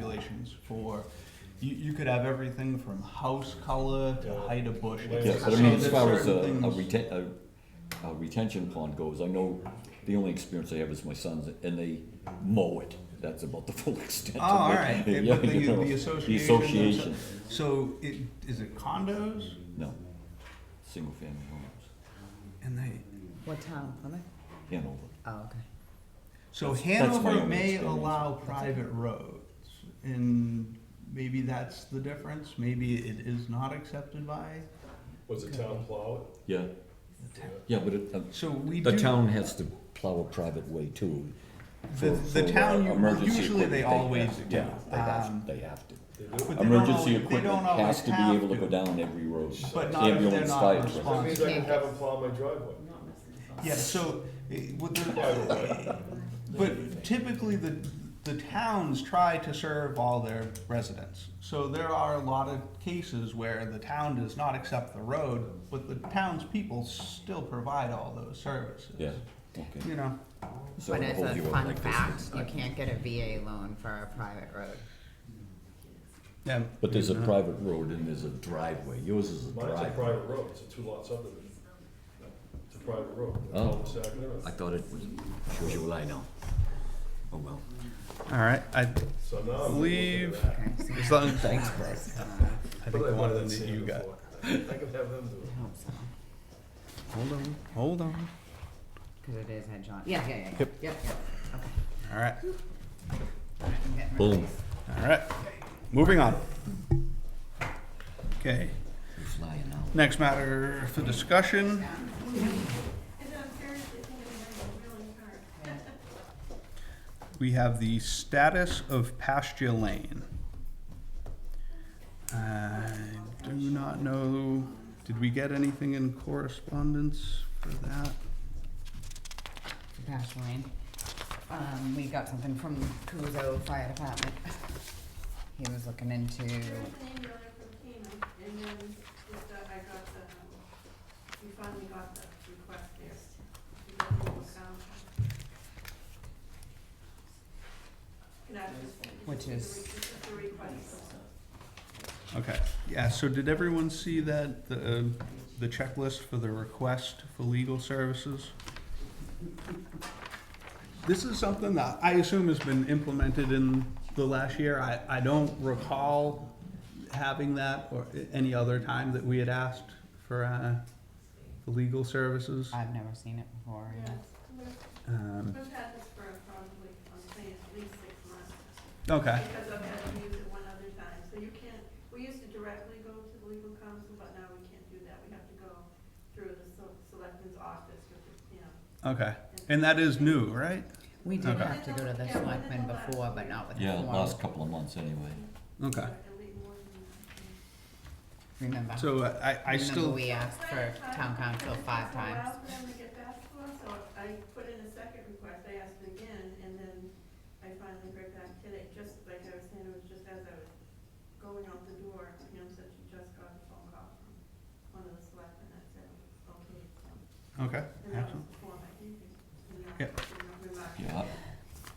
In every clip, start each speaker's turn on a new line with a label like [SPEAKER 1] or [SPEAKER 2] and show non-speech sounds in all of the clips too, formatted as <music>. [SPEAKER 1] stipulations for, you, you could have everything from house color to height of bush.
[SPEAKER 2] Yeah, but I
[SPEAKER 1] So
[SPEAKER 2] mean, as
[SPEAKER 1] there's
[SPEAKER 2] far as a,
[SPEAKER 1] certain
[SPEAKER 2] a
[SPEAKER 1] things-
[SPEAKER 2] reten, a, a retention pond goes, I know the only experience I have is my sons, and they mow it. That's about the full <laughs> extent
[SPEAKER 1] Oh,
[SPEAKER 2] of it.
[SPEAKER 1] all right,
[SPEAKER 2] <laughs> Yeah,
[SPEAKER 1] but the,
[SPEAKER 2] you know,
[SPEAKER 1] the association.
[SPEAKER 2] association.
[SPEAKER 1] So it, is it condos
[SPEAKER 2] no, single-family homes,
[SPEAKER 1] and they,
[SPEAKER 3] What town, are they?
[SPEAKER 2] Hanover.
[SPEAKER 3] Oh, okay.
[SPEAKER 1] so
[SPEAKER 2] that's my
[SPEAKER 1] Hanover
[SPEAKER 2] only
[SPEAKER 1] may
[SPEAKER 2] experience.
[SPEAKER 1] allow private roads and maybe that's the difference, maybe it is not accepted by
[SPEAKER 4] Was it town plow
[SPEAKER 2] Yeah,
[SPEAKER 1] the town.
[SPEAKER 2] yeah, but it, uh,
[SPEAKER 1] So we do.
[SPEAKER 2] the town has to plow a private way too.
[SPEAKER 1] The,
[SPEAKER 2] for-
[SPEAKER 1] the
[SPEAKER 2] for,
[SPEAKER 1] town,
[SPEAKER 2] uh,
[SPEAKER 1] u-
[SPEAKER 2] emergency
[SPEAKER 1] usually
[SPEAKER 2] equipment.
[SPEAKER 1] they always
[SPEAKER 2] have-
[SPEAKER 1] do.
[SPEAKER 2] Yeah, they
[SPEAKER 1] Um,
[SPEAKER 2] have, they have to.
[SPEAKER 4] it? They do?
[SPEAKER 1] but they don't
[SPEAKER 2] Emergency
[SPEAKER 1] always- they
[SPEAKER 2] equipment
[SPEAKER 1] don't always
[SPEAKER 2] has to be
[SPEAKER 1] have
[SPEAKER 2] able to go down every road,
[SPEAKER 1] But not if they're
[SPEAKER 2] ambulance,
[SPEAKER 1] not
[SPEAKER 2] fire truck.
[SPEAKER 1] responsible.
[SPEAKER 4] That means I can have them plow my driveway.
[SPEAKER 1] Yeah, so, eh, what
[SPEAKER 4] Right
[SPEAKER 1] the, eh, but typically the, the towns try to serve all their residents. So there are a lot of cases where the town does not accept the road, but the townspeople still provide all those services.
[SPEAKER 2] Yeah, okay.
[SPEAKER 1] You know,
[SPEAKER 2] So
[SPEAKER 3] But
[SPEAKER 2] I
[SPEAKER 3] as
[SPEAKER 2] hope
[SPEAKER 3] a
[SPEAKER 2] you all
[SPEAKER 3] fun
[SPEAKER 2] like this.
[SPEAKER 3] fact, you can't get a VA loan for a private
[SPEAKER 2] <laughs>
[SPEAKER 3] road.
[SPEAKER 1] yeah.
[SPEAKER 2] But there's a private road and there's a driveway. Yours is a
[SPEAKER 4] Mine's a
[SPEAKER 2] driveway.
[SPEAKER 4] private road, it's a two-lot subdivision. It's a private road.
[SPEAKER 2] Oh.
[SPEAKER 4] Cul-de-sac and everything.
[SPEAKER 2] I thought it was, shows you what I know. Oh, well.
[SPEAKER 1] All right, I,
[SPEAKER 4] So now I'm.
[SPEAKER 1] Leave.
[SPEAKER 3] Okay, so
[SPEAKER 1] as long, <laughs> thanks, bro. I
[SPEAKER 2] uh,
[SPEAKER 4] What did
[SPEAKER 1] think
[SPEAKER 4] I
[SPEAKER 1] one
[SPEAKER 4] want
[SPEAKER 1] of
[SPEAKER 4] that
[SPEAKER 1] them that you
[SPEAKER 4] sand
[SPEAKER 1] got.
[SPEAKER 4] for? I can have them do
[SPEAKER 3] I
[SPEAKER 4] it.
[SPEAKER 3] hope so,
[SPEAKER 1] Hold on, hold on.
[SPEAKER 3] cause it is at John, yeah, yeah, yeah, yep,
[SPEAKER 1] Yep.
[SPEAKER 3] yep, okay.
[SPEAKER 1] All right,
[SPEAKER 3] I'm getting rid of
[SPEAKER 2] Boom.
[SPEAKER 3] these.
[SPEAKER 1] all right, moving on. Okay.
[SPEAKER 2] You're flying now.
[SPEAKER 1] Next matter for discussion. We have the status of pasture lane. I do not know, did we get anything in correspondence for that?
[SPEAKER 3] Dash line. Um, we got something from Kuzo Fire Department. He was looking into,
[SPEAKER 5] um,
[SPEAKER 3] which is,
[SPEAKER 1] Okay, yeah, so did everyone see that, the, um, the checklist for the request for legal services? This is something that I assume has been implemented in the last year. I, I don't recall having that or a- any other time that we had asked for, uh, for legal services.
[SPEAKER 3] I've never seen it before. yeah.
[SPEAKER 1] Um,
[SPEAKER 5] We've had this for probably, I'm saying at least six months,
[SPEAKER 1] okay,
[SPEAKER 5] because I've had to use it one other time, so you can't, we used to directly go to the legal counsel, but now we can't do that, we have to go through the se- selectman's office, which is, you know.
[SPEAKER 1] okay. And that is new, right?
[SPEAKER 3] We did
[SPEAKER 1] Okay.
[SPEAKER 3] have to go to the selectmen before, but not with the
[SPEAKER 2] Yeah,
[SPEAKER 3] form.
[SPEAKER 2] last couple of months anyway.
[SPEAKER 1] Okay,
[SPEAKER 5] And we more than
[SPEAKER 3] Remember?
[SPEAKER 5] that.
[SPEAKER 1] so uh, I, I
[SPEAKER 3] Remember
[SPEAKER 1] still,
[SPEAKER 3] we asked for town council five times.
[SPEAKER 5] It took a while for them to get back to us, so I put in a second request, I asked again, and then I finally heard back today, just like I was saying, it was just as I was going out the door, you know, said she just got a phone call from one of the selectmen that said, okay, so.
[SPEAKER 1] okay,
[SPEAKER 5] And that was
[SPEAKER 1] excellent.
[SPEAKER 5] the form I gave you. And that-
[SPEAKER 1] Yep.
[SPEAKER 5] and that remark.
[SPEAKER 2] Yeah,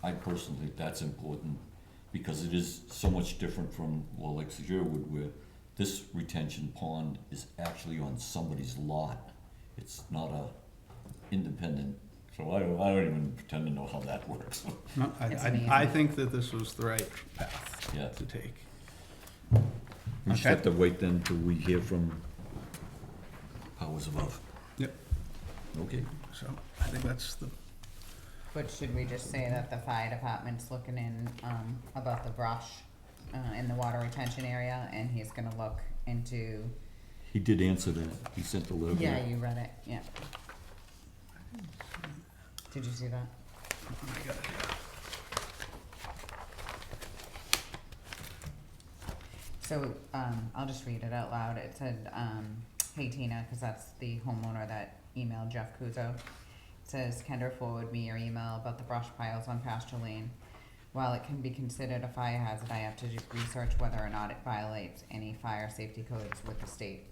[SPEAKER 2] I personally think that's important because it is so much different from, well, like Sherwood, where this retention pond is actually on somebody's lot. It's not a independent, so I don't, I don't even pretend to know how that <laughs> works.
[SPEAKER 1] No, I,
[SPEAKER 3] It's
[SPEAKER 1] I,
[SPEAKER 3] amazing.
[SPEAKER 1] I think that this was the right path.
[SPEAKER 2] Yeah.
[SPEAKER 1] to take.
[SPEAKER 2] We just
[SPEAKER 1] Okay.
[SPEAKER 2] have to wait then till we hear from powers above.
[SPEAKER 1] Yep.
[SPEAKER 2] Okay.
[SPEAKER 1] So I think that's the,
[SPEAKER 3] But should we just say that the fire department's looking in, um, about the brush, uh, in the water retention area, and he's gonna look into,
[SPEAKER 2] He did answer that. He sent the letter.
[SPEAKER 3] yeah, you read it, yeah. Did you see that? So, um, I'll just read it out loud. It said, um, hey Tina, cause that's the homeowner that emailed Jeff Kuzo. It says, Kendra forwarded me your email about the brush piles on pasture lane. While it can be considered a fire hazard, I have to do research whether or not it violates any fire safety codes with the state.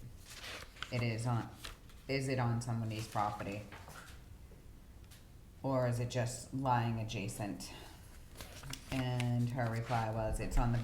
[SPEAKER 3] It is on, is it on somebody's property? Or is it just lying adjacent? And her reply was, it's on the